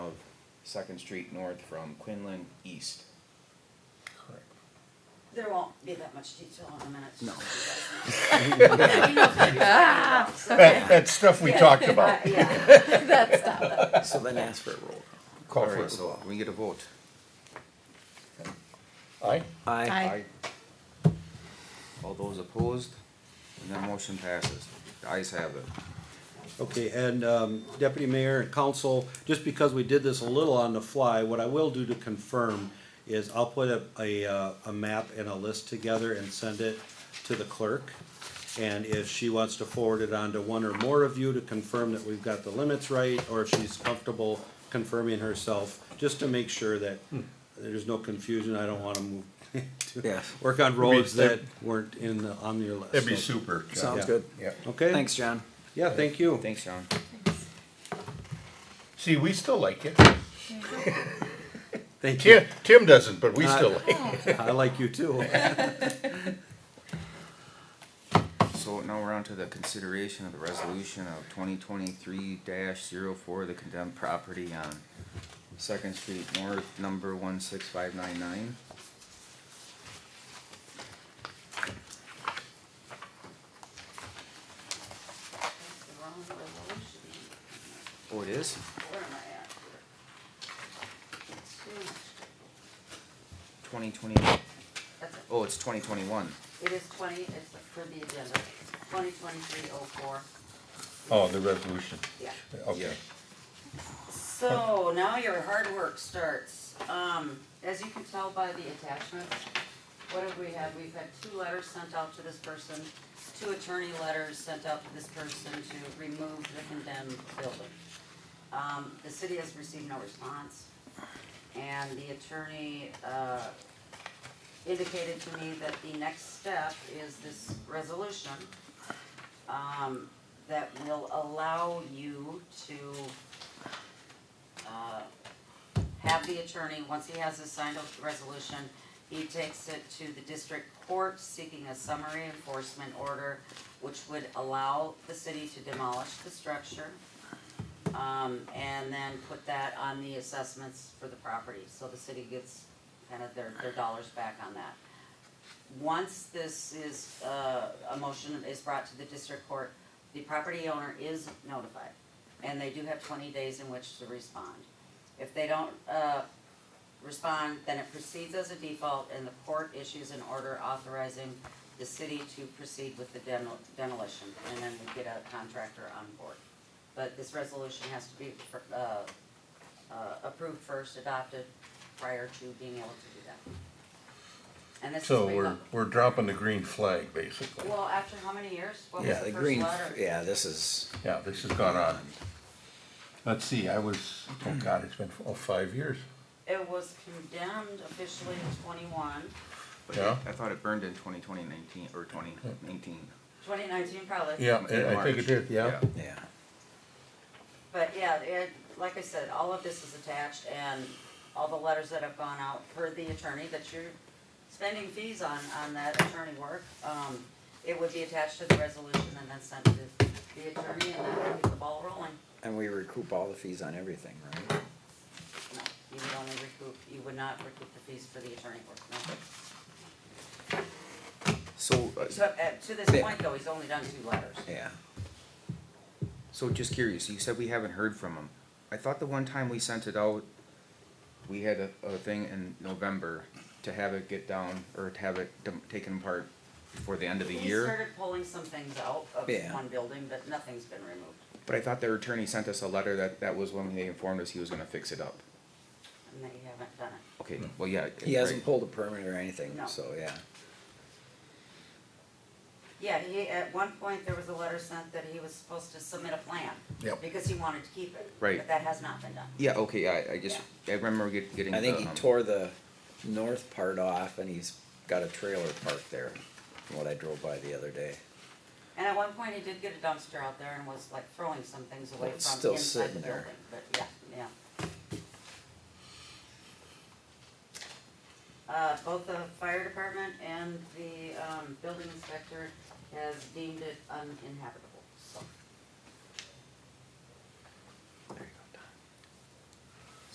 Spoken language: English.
Second Street North from Quinlan East. Correct. There won't be that much detail on the minutes. No. That, that's stuff we talked about. Yeah, That stuff. So then ask for a roll. Call for Alright, it. so we get a vote. Aye? Aye. Aye. All those opposed? And that motion passes. The ayes have it. Okay, and um, Deputy Mayor and Council, just because we did this a little on the fly, what I will do to confirm is I'll put a, a, uh, a map and a list together and send it to the clerk. And if she wants to forward it on to one or more of you to confirm that we've got the limits right, or if she's comfortable confirming herself, just to make sure that there's no confusion, I don't want to move, to Yes. work on roads It'd that be- weren't in, the- on your list. That'd be So- super. Sounds Yeah. good. Yeah. Okay? Thanks, John. Yeah, thank you. Thanks, John. See, we still like it. Thank you. Tim, Tim doesn't, but we Uh, still like it. I like you too. So now we're on to the consideration of the resolution of twenty twenty-three 4 the condemned property on Second Street North, number one six five nine nine. that's the wrong resolution. Oh, it is? Where am I at here? It's too much. Twenty twenty, That's it. oh, it's twenty twenty-one. It is twenty, it's for the agenda, twenty twenty-three oh four. Oh, the resolution. Yeah. Okay. So now your hard work starts. Um, as you can tell by the attachments, what have we had? We've had two letters sent out to this person, two attorney letters sent out to this person to remove the condemned building. Um, the city has received no response. And the attorney, uh, indicated to me that the next step is this resolution, um, that will allow you to uh, have the attorney, once he has his signed resolution, he takes it to the district court seeking a summary enforcement order, which would allow the city to demolish the structure. Um, and then put that on the assessments for the property, so the city gets kind of their, their dollars back on that. Once this is, uh, a motion is brought to the district court, the property owner is notified. And they do have twenty days in which to respond. If they don't, uh, respond, then it proceeds as a default and the court issues an order authorizing the city to proceed with the demo- demolition and then we get a contractor on board. But this resolution has to be, uh, uh, approved first, adopted prior to being able to do that. And this is. So way we're, back. we're dropping the green flag, basically. Well, after how many years? What was Yeah, the the first green, letter? yeah, this is, Yeah, this has gone on. Let's see, I was, oh God, it's been, oh, five years. It was condemned officially in 21. Yeah. I thought it burned in twenty twenty nineteen, or twenty nineteen. 2019 probably. Yeah, I I think it did, yeah. yeah. But yeah, it, like I said, all of this is attached and all the letters that have gone out for the attorney that you're spending fees on, on that attorney work. Um, it would be attached to the resolution and then sent to the attorney and then we get the ball rolling. And we recoup all the fees on everything, right? No, you would only recoup, you would not recoup the fees for the attorney work, no. So, uh, So, uh, to this point though, he's only done two letters. Yeah. so just curious, you said we haven't heard from him. I thought the one time we sent it out, we had a, a thing in November to have it get down, or to have it dem- taken apart before the end of the We year. started pulling some things out of Yeah. one building, but nothing's been removed. But I thought their attorney sent us a letter that, that was when they informed us he was gonna fix it up. And they haven't done it. Okay, Hmm. well, yeah. He hasn't right. pulled a permit or anything, No. so, yeah. Yeah, he, at one point, there was a letter sent that he was supposed to submit a plan. Yep. Because he wanted to keep it. Right. But that has not been done. Yeah, okay, I, I just, I remember get- getting. I think the, he um, tore the north part off and he's got a trailer parked there, from what I drove by the other day. And at one point, he did get a dumpster out there and was like throwing some things away Well, it's from still inside the sitting there. building, but yeah, yeah. Uh, both the fire department and the, um, building inspector has deemed it uninhabitable.